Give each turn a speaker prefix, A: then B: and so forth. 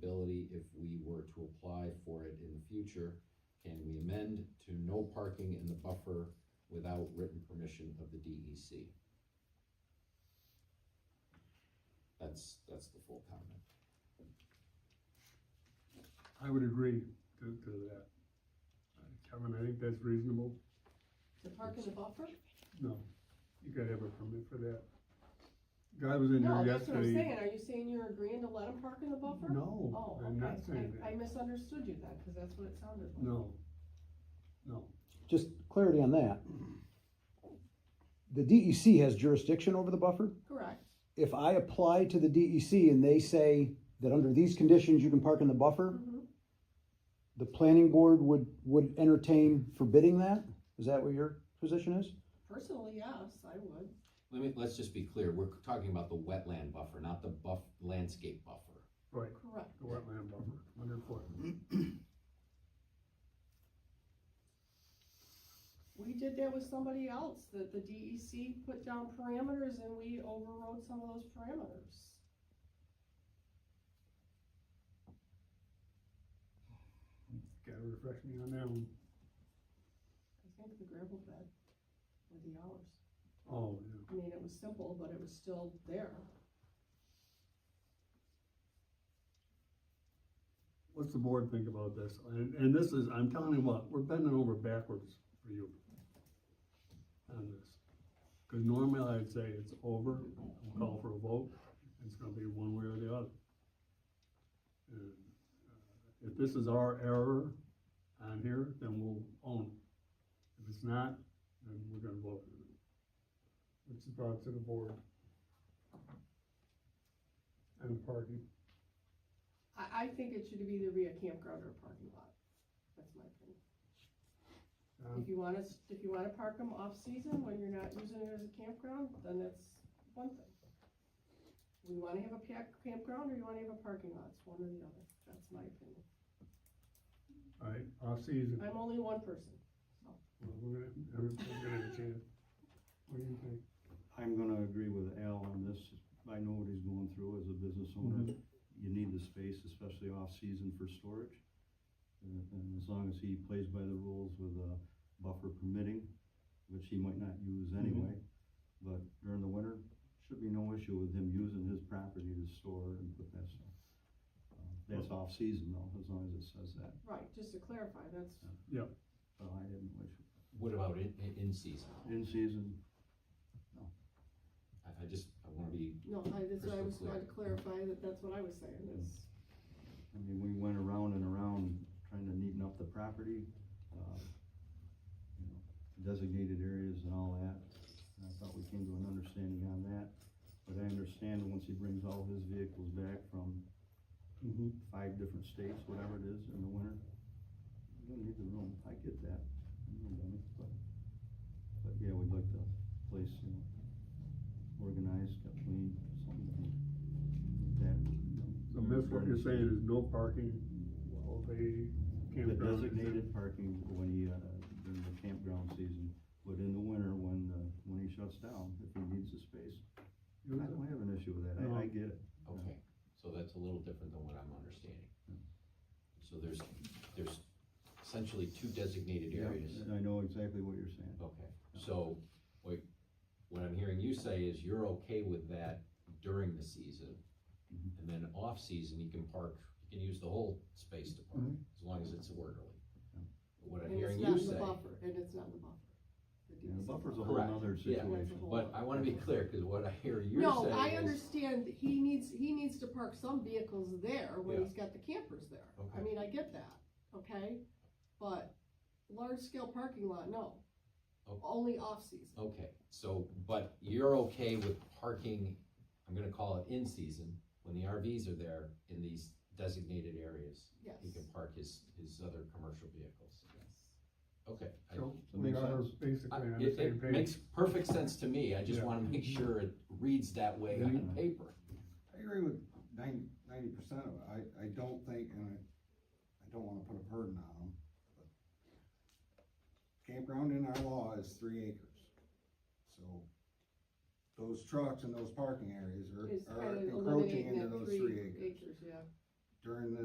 A: see if we were to apply for it in the future, can we amend to no parking in the buffer without written permission of the E DEC? That's, that's the full comment.
B: I would agree to, to that. Uh, Kevin, I think that's reasonable.
C: To park in the buffer?
B: No, you gotta have a permit for that. Guy was in
C: No,
B: here
C: that's what I'm
B: yesterday.
C: saying, are you saying you're agreeing to let them park in the buffer?
B: No,
C: Oh,
B: I'm not
C: okay,
B: saying
C: I, I
B: that.
C: misunderstood you then, cause that's what it sounded like.
B: No, no.
D: Just clarity on that. The DEC has jurisdiction over the buffer.
C: Correct,
D: If I apply to the DEC and they say that under these conditions you can park in the buffer,
C: Mhm.
D: the planning board would, would entertain forbidding that? Is that what your position is?
C: personally, yes, I would,
A: Let me, let's just be clear, we're talking about the wetland buffer, not the buff, landscape buffer.
B: Right,
C: correct.
B: the wetland buffer, underfoot.
C: We did that with somebody else, that the DEC put down parameters and we overrode some of those parameters.
B: Gotta refresh me on that one.
C: I think the gravel bed with the hours.
B: Oh, yeah.
C: I mean, it was simple, but it was still there.
B: What's the board think about this? And, and this is, I'm telling you what, we're bending over backwards for you on this. Cause normally I'd say it's over, I'll call for a vote, it's gonna be one way or the other. And, uh, If this is our error on here, then we'll own it. If it's not, then we're gonna vote. What's the thoughts of the board? And the parking?
C: I, I think it should be either be a campground or a parking lot. That's my opinion.
B: John?
C: If you want us, if you wanna park them off-season when you're not using it as a campground, then that's one thing. We wanna have a pa- campground or you wanna have a parking lot, it's one or the other, that's my opinion.
B: Alright, off-season,
C: I'm only one person.
B: Well, we're gonna, everybody's gonna have a chance. What do you think?
E: I'm gonna agree with Al on this. I know what he's going through as a business owner. You need the space, especially off-season for storage. And, and as long as he plays by the rules with a buffer permitting, which he might not use anyway. But during the winter, should be no issue with him using his property to store and put that stuff. Uh, That's off-season though, as long as it says that.
C: Right, just to clarify, that's,
E: But I didn't wish,
A: What about in, in- in season?
E: in-season,
A: I, I just, I wanna be,
C: no, I, that's what I
A: Crystal
C: was trying to
A: clear.
C: clarify, that that's what I was saying, is.
E: I mean, we went around and around trying to neaten up the property, uh, you know, designated areas and all that. And I thought we came to an understanding on that, but I understand once he brings all his vehicles back from
B: Mm-hmm.
E: five different states, whatever it is, in the winter, you don't need the room, I get that. I'm not dummy, But, but yeah, we'd like the place, you know, organized, kept clean, something like that.
B: So Miss, what you're saying is no parking while they
E: The
B: campground. is in-
E: designated parking when he, uh, during the campground season, but in the winter when, uh, when he shuts down, if he needs the space. I
B: You know,
E: don't have an issue with that, I, I get it.
A: okay, so that's a little different than what I'm understanding. So there's, there's essentially two designated areas.
E: Yeah, I know exactly what you're saying.
A: Okay, so, what, what I'm hearing you say is you're okay with that during the season,
E: Mhm.
A: and then off-season, you can park, you can use the whole space to park,
E: Mhm.
A: as long as it's orderly.
E: Yeah.
A: But What I'm
C: And it's
A: hearing
C: not
A: you
C: in the
A: say,
C: buffer, And it's not in the buffer. The
E: Yeah, the
C: DEC
E: buffer's a
C: buffer.
E: whole
A: Correct,
E: nother
A: yeah.
E: situation.
A: but I wanna be clear, cause what I hear you
C: No, I
A: saying is,
C: understand, that he needs, he needs to park some vehicles there when
A: Yeah.
C: he's got the campers there. I
A: Okay.
C: mean, I get that, okay? But large scale parking lot, no.
A: Oh.
C: Only off season.
A: okay, so, but you're okay with parking, I'm gonna call it in-season, when the RVs are there in these designated areas,
C: yes.
A: he can park his, his other commercial vehicles,
C: yes.
A: okay. I-
B: So
E: That
B: we
E: makes
B: are
E: sense.
A: I-
B: basically on the
A: It,
B: same
A: it
B: page.
A: makes perfect sense to me, I just
B: Yeah.
A: wanna make sure it reads that way on
E: Mhm.
A: paper.
F: I agree with ninety percent of it, I, I don't think, and I, I don't wanna put a burden on them, but campground in our law is three acres, so those trucks and those parking areas
C: It's
F: are,
C: kind
F: are
C: of
F: encroaching
C: eliminating
F: into
C: that
F: those
C: three
F: three acres.
C: acres, yeah.
F: During the